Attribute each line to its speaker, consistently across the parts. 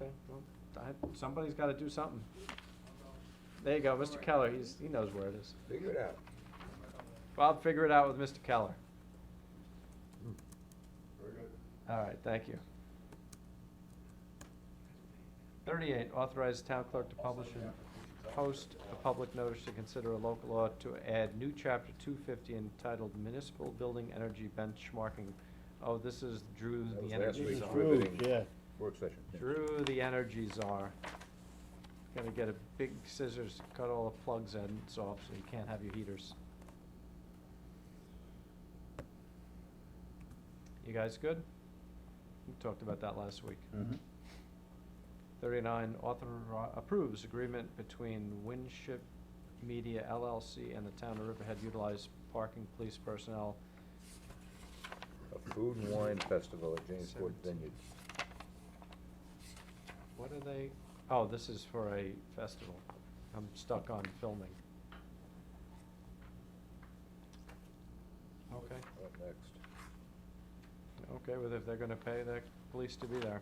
Speaker 1: Okay, well, I- somebody's gotta do something. There you go, Mr. Keller, he's, he knows where it is.
Speaker 2: Figure it out.
Speaker 1: Well, I'll figure it out with Mr. Keller.
Speaker 2: Very good.
Speaker 1: All right, thank you. Thirty-eight, authorize town clerk to publish and post a public notice to consider a local law to add new chapter two fifty entitled Municipal Building Energy Benchmarking. Oh, this is Drew,
Speaker 2: That was
Speaker 1: the
Speaker 2: last
Speaker 1: energy
Speaker 2: week's
Speaker 1: czar.
Speaker 2: Drew. riveting.
Speaker 3: Yeah.
Speaker 2: Work session.
Speaker 1: Drew, the energy czar. Gonna get a big scissors, to cut all the plugs ends off, so you can't have your heaters. You guys good? We talked about that last week.
Speaker 3: Mm-hmm.
Speaker 1: Thirty-nine, author approves agreement between Winship Media LLC and the town of Riverhead utilize parking police personnel.
Speaker 2: A food and wine festival at Jamesport
Speaker 1: Seventeen.
Speaker 2: Vineyard.
Speaker 1: What are they, oh, this is for a festival. I'm stuck on filming. Okay,
Speaker 2: Up next.
Speaker 1: okay, well, if they're gonna pay the police to be there.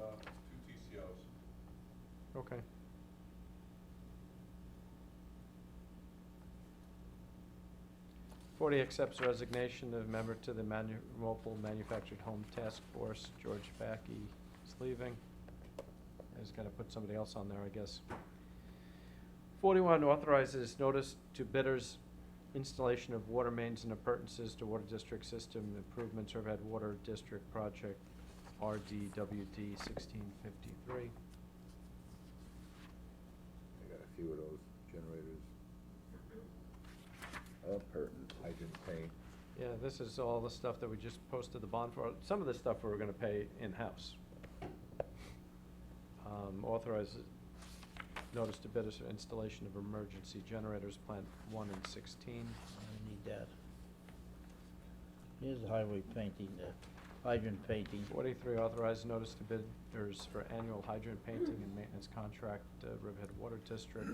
Speaker 4: Uh, two TCOs.
Speaker 1: Okay. Forty accepts resignation of member to the manu- Mobile Manufactured Home Task Force, George Backy is leaving. He's gonna put somebody else on there, I guess. Forty-one authorizes notice to bidders installation of water mains and appurtenances to Water District System Improvements Riverhead Water District Project, RDWD sixteen fifty-three.
Speaker 2: I got a few of those generators. Uh, Pertins, hydrant paint.
Speaker 1: Yeah, this is all the stuff that we just posted the bond for. Some of the stuff we were gonna pay in-house. Um, authorize notice to bidders for installation of emergency generators, plant one and sixteen.
Speaker 3: I need that. Here's the highway painting, the hydrant painting.
Speaker 1: Forty-three, authorize notice to bidders for annual hydrant painting and maintenance contract, uh, Riverhead Water District.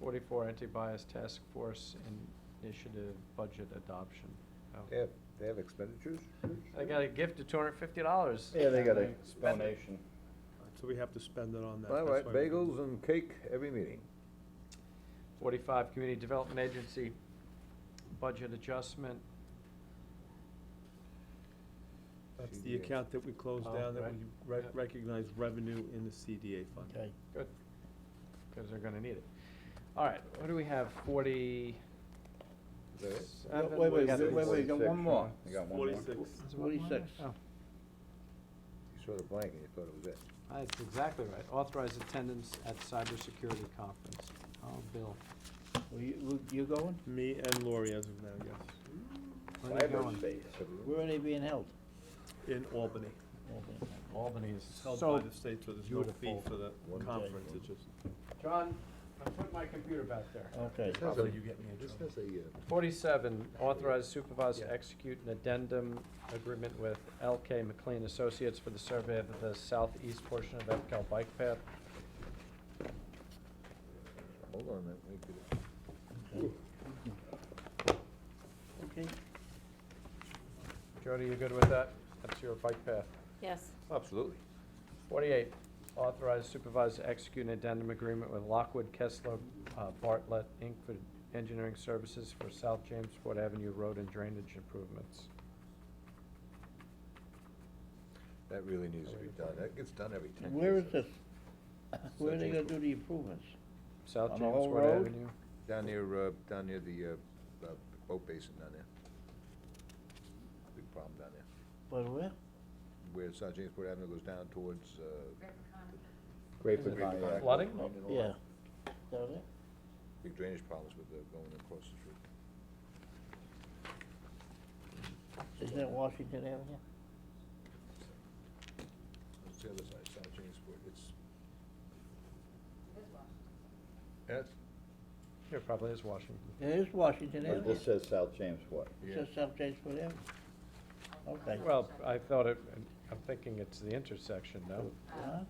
Speaker 1: Forty-four, anti-bias task force initiative budget adoption. Oh.
Speaker 2: They have, they have expenditures?
Speaker 1: They got a gift of two hundred and fifty dollars.
Speaker 3: donation.
Speaker 5: So we have to spend it on that.
Speaker 2: All right,
Speaker 5: that's why we-
Speaker 2: bagels and cake every meeting.
Speaker 1: Forty-five, community development agency budget adjustment.
Speaker 5: That's the
Speaker 2: CDA.
Speaker 5: account that we closed
Speaker 1: Oh,
Speaker 5: down, that
Speaker 1: right.
Speaker 5: we re-
Speaker 1: Yeah.
Speaker 5: recognize revenue in the CDA fund.
Speaker 3: Okay.
Speaker 1: Good, because they're gonna need it. All right, what do we have, forty?
Speaker 2: Is that it?
Speaker 1: Seven, what
Speaker 3: Wait, wait,
Speaker 1: do
Speaker 3: wait,
Speaker 1: we
Speaker 3: wait,
Speaker 1: got?
Speaker 3: wait, got one more.
Speaker 2: I got one more.
Speaker 5: Forty-six.
Speaker 1: Is it one more?
Speaker 3: Forty-six.
Speaker 1: Oh,
Speaker 2: You saw the blank and you thought it was it.
Speaker 1: That's exactly right. Authorize attendance at cybersecurity conference. Oh, Bill.
Speaker 3: Were you, were you going?
Speaker 5: Me and Lori as of now, yes,
Speaker 1: where are you going?
Speaker 2: Cyberspace.
Speaker 3: Where are they being held?
Speaker 5: in Albany.
Speaker 3: Okay.
Speaker 1: Albany is
Speaker 5: It's held by
Speaker 1: so
Speaker 5: the state, so there's no fee
Speaker 1: beautiful.
Speaker 5: for the
Speaker 2: One day.
Speaker 5: conference, it's just.
Speaker 1: John, I put my computer back there.
Speaker 3: Okay.
Speaker 2: This has a-
Speaker 5: get me
Speaker 2: This has a, uh,
Speaker 1: Forty-seven, authorize supervisor to
Speaker 5: Yeah.
Speaker 1: execute an addendum agreement with LK McLean Associates for the survey of the southeast portion of Epcal Bike Path.
Speaker 2: uh, hold on a minute, we could-
Speaker 3: Okay.
Speaker 1: Jody, you good with that? That's your bike path.
Speaker 6: Yes.
Speaker 2: Absolutely.
Speaker 1: Forty-eight, authorize supervisor to execute an addendum agreement with Lockwood Kessler uh, Bartlett Inc. for engineering services for South Jamesport Avenue Road and drainage improvements.
Speaker 2: That really needs to be done. That gets done every ten years.
Speaker 3: Where is this? Where are they gonna do the improvements?
Speaker 1: South
Speaker 3: On the whole
Speaker 1: Jamesport
Speaker 3: road?
Speaker 1: Avenue.
Speaker 2: Down near, uh, down near the, uh, uh, boat basin down there. Big problem down there.
Speaker 3: But where?
Speaker 2: Where South Jamesport Avenue goes down towards, uh,
Speaker 1: Is it Flooding?
Speaker 3: Yeah. Down there?
Speaker 2: big drainage problems with the going across the street.
Speaker 3: Isn't that Washington Avenue?
Speaker 2: It's the other side, South Jamesport, it's. That's,
Speaker 1: Yeah, probably is Washington.
Speaker 3: It is Washington Avenue.
Speaker 7: This says South James Way.
Speaker 3: It
Speaker 2: yeah,
Speaker 3: says South Jamesport Avenue. Okay.
Speaker 1: Well, I thought it, I'm thinking it's the intersection, no?
Speaker 3: Huh?